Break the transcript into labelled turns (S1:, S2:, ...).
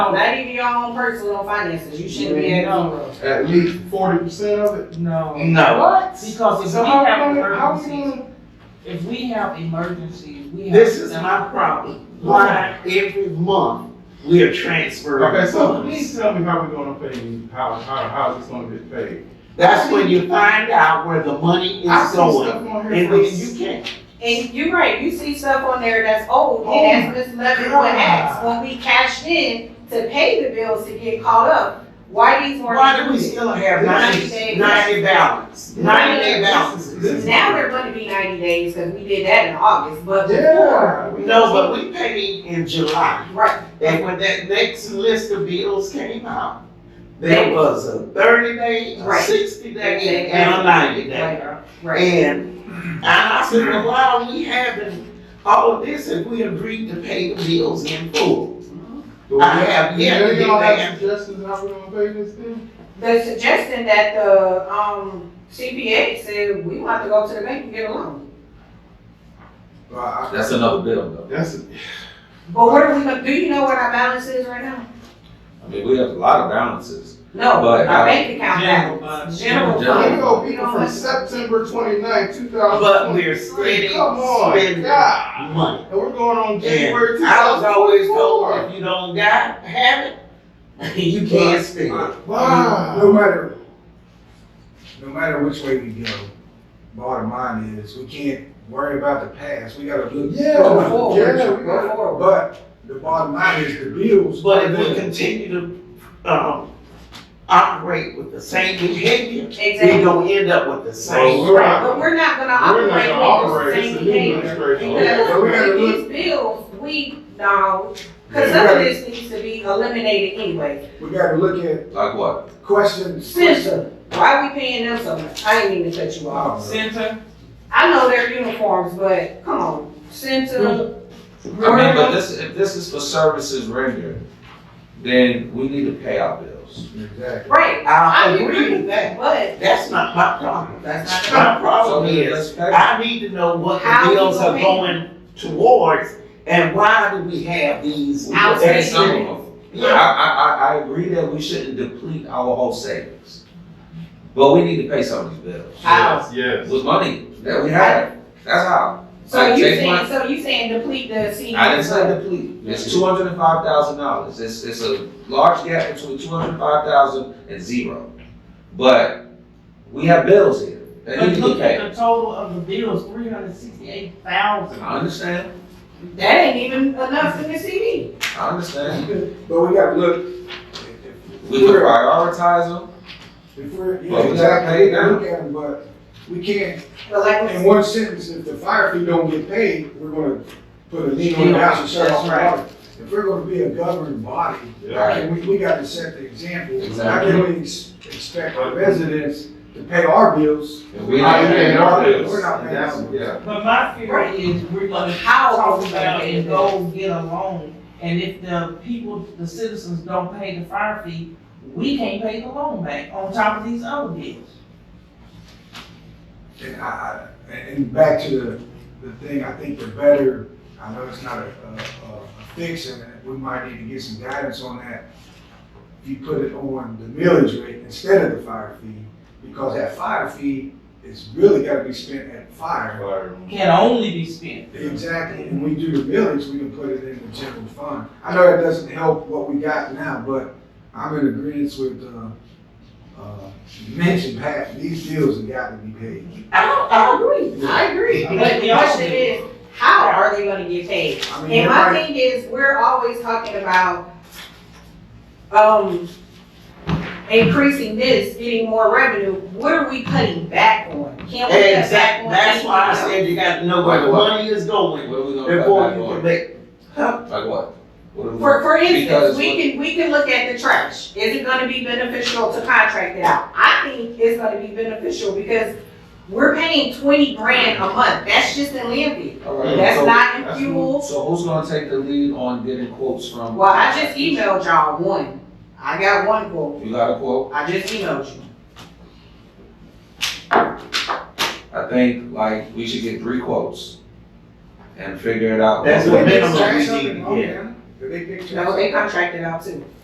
S1: Not even your own personal finances, you shouldn't be at home.
S2: At least forty percent of it?
S3: No,
S4: No.
S2: What?
S3: because if
S2: So
S3: we
S2: how
S3: have
S2: we gonna, how we
S3: emergencies,
S2: gonna?
S3: if we have emergencies, we have.
S4: This is my problem. Why every month we are transferring
S2: Okay, so
S4: funds?
S2: please tell me how we gonna pay, how, how, how is this gonna get paid?
S4: That's when you find out where the money
S2: I
S4: is
S2: see
S4: going.
S2: stuff on here
S4: And
S2: from-
S4: then you can't.
S1: And you're right, you see stuff on there that's old,
S2: Oh
S1: and as Ms. Levin would
S2: God.
S1: ask, when we cashed in to pay the bills to get caught up, why these weren't.
S4: Why do we
S1: included?
S4: still have
S1: Ninety
S4: ninety,
S1: days.
S4: ninety balance? Ninety day balances.
S1: Now they're gonna be ninety days, cause we did that in August, but before,
S2: Yeah. we-
S4: No, but we paid in July.
S1: right,
S4: And when that next list of bills came out, there was a thirty day, a
S1: Right.
S4: sixty day,
S1: Exactly.
S4: and a ninety day.
S1: right, right.
S4: And I said, well, why are we having all of this if we agreed to pay the bills in full?
S2: Do we-
S4: I have yet to
S2: Do
S4: get
S2: y'all
S4: that.
S2: have suggestions how we gonna pay this thing?
S1: The suggestion that the, um, CPA said, we want to go to the bank and get a loan,
S2: Well, I-
S5: That's another bill though.
S2: That's,
S1: but what are we gonna, do you know what our balance is right now?
S5: I mean, we have a lot of balances.
S1: No,
S5: But
S1: our
S5: I-
S1: bank account
S3: General
S1: balance,
S3: fund.
S1: general
S5: General
S2: here
S1: fund.
S2: we go, people from September twenty-ninth, two thousand
S4: But we're
S2: twenty-three,
S4: spending,
S2: come on,
S4: spending
S2: God.
S4: money.
S2: And we're going on
S4: And
S2: January two
S4: I was
S2: thousand
S4: always told,
S2: twenty-four.
S4: if you don't got, have it, you can't spend
S2: uh,
S4: it.
S2: Wow.
S6: Uh, No matter, no matter which way we go, bottom line is, we can't worry about the past, we gotta look.
S2: Yeah,
S6: forward.
S2: forward. Yeah, we gotta-
S6: But the bottom line is the bills.
S4: But if
S2: uh,
S4: we continue to, um, operate with the same behavior, we're
S1: Exactly.
S4: gonna end up with the
S2: Well,
S4: same
S2: we're-
S4: problem.
S1: But we're not gonna
S2: We're not gonna
S1: operate
S2: operate,
S1: with
S2: it's
S1: the
S2: the
S1: same
S2: new
S1: behavior.
S2: administration.
S1: Because
S6: But we gotta
S1: with
S6: look-
S1: these bills, we, no,
S6: Yeah,
S1: cause
S6: we
S1: some of
S6: gotta-
S1: this needs to be eliminated anyway.
S6: We gotta look at
S5: Like what?
S6: questions.
S1: Center, why we paying them so much? I didn't mean to cut you off.
S6: Wow.
S3: Center,
S1: I know their uniforms, but come on, center.
S5: Hmm. I mean, but this, if this is for services rendered, then we need to pay our bills.
S6: Exactly.
S1: Right,
S4: I
S1: I
S4: agree
S1: agree,
S4: with that.
S1: but
S4: That's not my problem.
S1: that's not.
S4: My
S5: So
S4: problem
S5: then
S4: is,
S5: let's pay.
S4: I need to know what
S1: How
S4: the
S1: you
S4: bills are
S1: pay?
S4: going towards and why do we have these?
S1: Outstanding.
S5: Pay some
S4: outstanding-
S5: of them. I,
S4: Yeah,
S5: I, I, I agree that we shouldn't deplete our whole savings. But we need to pay some of these bills.
S1: How?
S2: Yes.
S5: With money that we have. That's how.
S1: So you
S5: Take
S1: saying,
S5: money.
S1: so you saying deplete the senior.
S5: I didn't say deplete. It's two hundred and five thousand dollars. It's, it's a large gap between two hundred and five thousand and zero. But we have bills here that
S3: but
S5: need to be
S3: look
S5: paid.
S3: at the total of the bills, three hundred sixty-eight thousand.
S5: I understand.
S1: That ain't even enough in the CD.
S5: I understand.
S6: But we gotta look, if- if
S5: We can prioritize them.
S6: if we're,
S5: Well,
S6: yeah,
S5: we
S6: exactly, we
S5: gotta
S6: gotta look at them, but we can't,
S1: But like,
S6: in one sentence, if the fire fee don't get paid, we're gonna put a lien on the house and shut off the
S3: That's
S6: water. If we're gonna be a governing body,
S2: Yeah.
S6: I mean, we, we gotta set the example. How
S5: Exactly.
S6: can we ex- expect our residents to pay our bills?
S5: If we
S2: I
S5: not
S2: paying
S5: paying
S2: our
S5: our
S2: bills.
S6: We're not paying our bills.
S5: Yeah.
S3: But my fear
S1: Right.
S3: is we're gonna
S1: How are
S3: talk
S1: we gonna
S3: about
S1: pay
S3: and
S1: the
S3: go get a loan. And if the people, the citizens don't pay the fire fee, we can't pay the loan back on top of these other bills.
S6: And I, I- and and back to the, the thing, I think the better, I know it's not a, a, a a fix and we might need to get some guidance on that. You put it on the millage rate instead of the fire fee, because that fire fee is really gotta be spent at fire.
S3: Can only be spent.
S6: Exactly, and we do the millage, we can put it in the general fund. I know that doesn't help what we got now, but I'm in agreement with, uh, uh, mention Pat, these bills have got to be paid.
S1: I, I agree, I agree, but the question is, how are they gonna get paid?
S6: I mean,
S1: And my
S6: everybody-
S1: thing is, we're always talking about, um, increasing this, getting more revenue, what are we cutting back on? Can't we cut back
S4: exactly.
S1: on?
S4: That's why I
S1: anything else?
S4: said you got to know where the money is going
S5: What are we gonna cut
S4: before
S5: back
S4: you can
S5: on?
S4: make. Huh?
S5: Like what? What are we-
S1: For, for instance,
S5: Because
S1: we
S5: what-
S1: can, we can look at the trash, is it gonna be beneficial to contract it out? I think it's gonna be beneficial, because we're paying twenty grand a month, that's just in landfill.
S5: All right,
S1: That's
S5: so-
S1: not in
S2: that's-
S1: fuel,
S5: So who's gonna take the lead on getting quotes from?
S1: well, I just emailed y'all one, I got one quote,
S5: You got a quote?
S1: I just emailed you.
S5: I think like we should get three quotes and figure it out.
S4: That's
S6: Wait
S4: what
S6: a minute,
S4: minimum
S6: say
S4: we
S6: something,
S4: need to
S6: okay.
S4: get.
S6: Did they pick?
S1: No, they contracted out too.